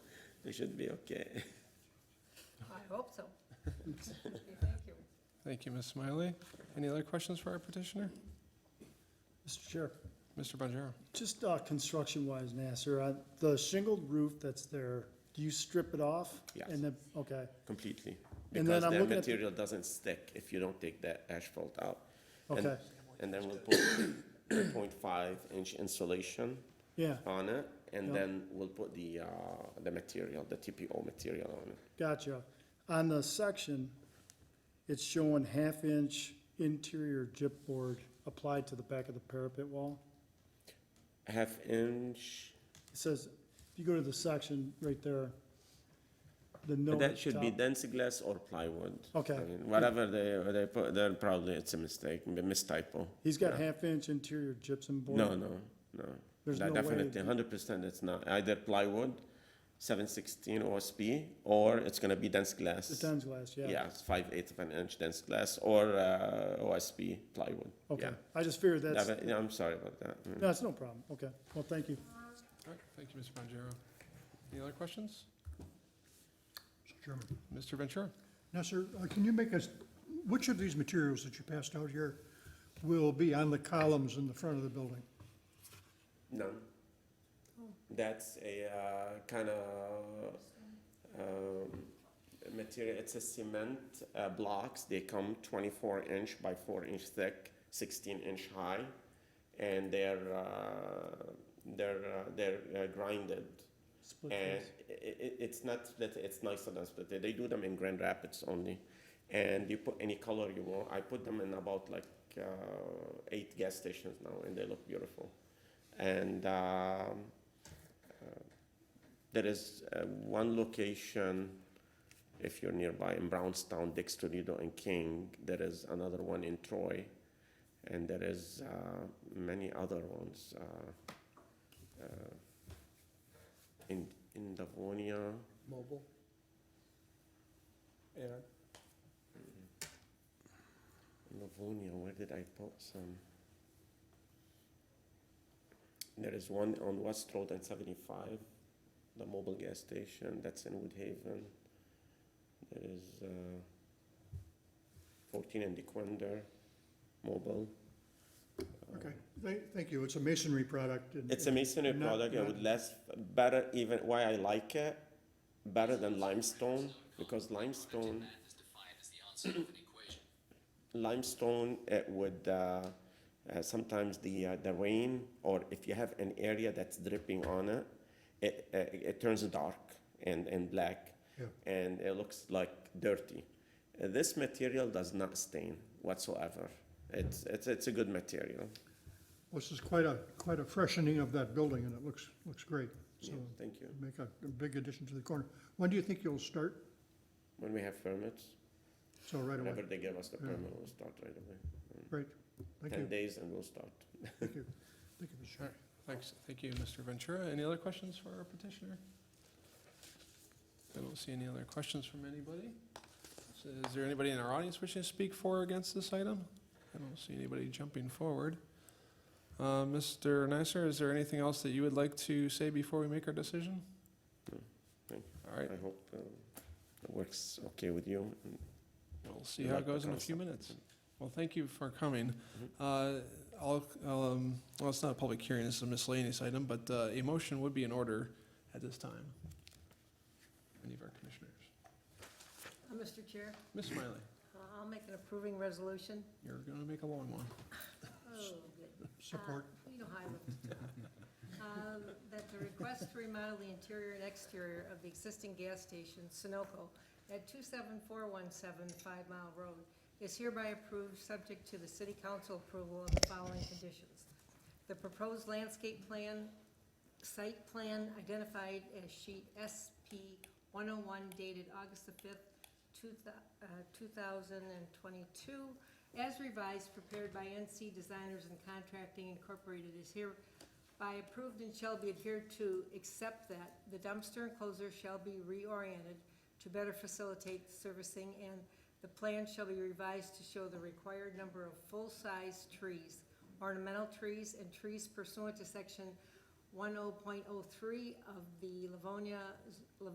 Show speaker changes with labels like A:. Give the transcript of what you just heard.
A: we should be okay.
B: I hope so. Okay, Thank you.
C: Thank you, Ms. Smiley. Any other questions for our petitioner?
D: Mr. Chair,
C: Mr. Bonjero?
D: just uh, construction-wise, Nasser, uh, the shingled roof that's there, do you strip it off?
A: Yes.
D: And then, okay,
A: Completely.
D: And then
A: Because
D: I'm
A: the
D: looking at the-
A: material doesn't stick if you don't take that asphalt out. And-
D: okay,
A: And then we'll put point five inch insulation
D: yeah,
A: on it, and
D: Yeah.
A: then we'll put the, uh, the material, the TPO material on it.
D: gotcha. On the section, it's showing half-inch interior gypboard applied to the back of the parapet wall.
A: Half inch,
D: It says, if you go to the section right there, the
A: but
D: note. at
A: that
D: the
A: should be
D: top.
A: dense glass or plywood.
D: Okay.
A: I mean, Whatever they, they put, there probably it's a mistake, a mistypo.
D: He's got
A: Yeah.
D: half-inch interior gypsum board.
A: No, no, no.
D: There's
A: That
D: no way
A: Definitely,
D: it-
A: hundred percent, it's not, either plywood, seven sixteen OSB, or it's gonna be dense glass.
D: The times glass, yeah.
A: Yeah, it's five eighths of an inch dense glass, or, uh, OSB plywood,
D: Okay,
A: yeah.
D: I just figured that's,
A: That- yeah, I'm sorry about that. Mm.
D: that's no problem. Okay, well, thank you.
C: All right, thank you, Mr. Bonjero. Any other questions?
E: Mr. Chairman.
C: Mr. Ventura?
E: Now, sir, uh, can you make us, which of these materials that you passed out here will be on the columns in the front of the building?
A: No. That's a uh, kind of
B: Uh,
A: um, material. It's a cement uh, blocks. They come 24 inch by 4 inch thick, 16 inch high, and they're uh, they're uh, they're uh, grinded.
D: Split
A: And
D: face.
A: i i it's not split. It's nicer than split. They do them in Grand Rapids only, and you put any color you want. I put them in about like uh, eight gas stations now, and they look beautiful and um, uh, there is uh, one location if you're nearby in Brownstown, Dix, Toledo, and King. There is another one in Troy, and there is uh, many other ones uh, uh, in in Livonia.
F: Mobile. Aaron,
A: Mm-hmm. Livonia, where did I put some? There is one on West Road and seventy-five, the mobile gas station, that's in Woodhaven. There is, uh, fourteen in DeQuinder, mobile.
E: Okay, thank, thank you. It's a masonry product. and-
A: It's a masonry
E: Not-
A: product, it
E: not-
A: would last better even, why I like it, better than limestone, because limestone, limestone, it would, uh, uh, sometimes the, uh, the rain, or if you have an area that's dripping on it, it, uh, it turns dark and, and black.
E: Yeah.
A: And it looks like dirty. Uh, This material does not stain whatsoever. It's, it's, it's a good material.
E: This is quite a, quite a freshening of that building, and it looks, looks great. So
A: Yeah, Thank you.
E: make a a big addition to the corner. When do you think you'll start?
A: When we have permits,
E: So right
A: whenever
E: away.
A: they give us the
E: Yeah.
A: permit, we'll start right away.
E: Great. Thank
A: Ten
E: you.
A: days and we'll start.
E: Thank you. Thank you, Mr. Chairman.
C: Thanks, thank you, Mr. Ventura. Any other questions for our petitioner? I don't see any other questions from anybody. So Is there anybody in our audience wishing to speak for or against this item? I don't see anybody jumping forward. Uh, Mr. Nasser, is there anything else that you would like to say before we make our decision?
A: No, thank
C: All right,
A: I hope uh, it works okay with you. and
C: We'll see
A: we
C: how
A: like
C: it
A: the
C: goes in a few
A: concept.
C: minutes. Well, thank you for coming. Uh, I'll, I'll, um, well, it's not a public hearing, it's a miscellaneous item, but uh, a motion would be in order at this time. Any of our commissioners?
B: Uh, Mr. Chair,
C: Ms. Smiley,
B: uh, I'll make an approving resolution.
C: you're going to make a long one.
B: Oh, good.
E: Support.
B: Uh, You know how I love to talk. Um, That the request to remodel the interior and exterior of the existing gas station, Sunoco, at 27417 Five Mile Road is hereby approved, subject to the city council approval of the following conditions. The proposed landscape plan, site plan identified as sheet SP 101 dated August the 5th, two thou- uh, 2022, as revised, prepared by NC Designers and Contracting Incorporated is hereby approved and shall be adhered to, except that the dumpster enclosure shall be reoriented to better facilitate servicing, and the plan shall be revised to show the required number of full-size trees, ornamental trees, and trees oh pursuant to section 10.03 of the Livonia,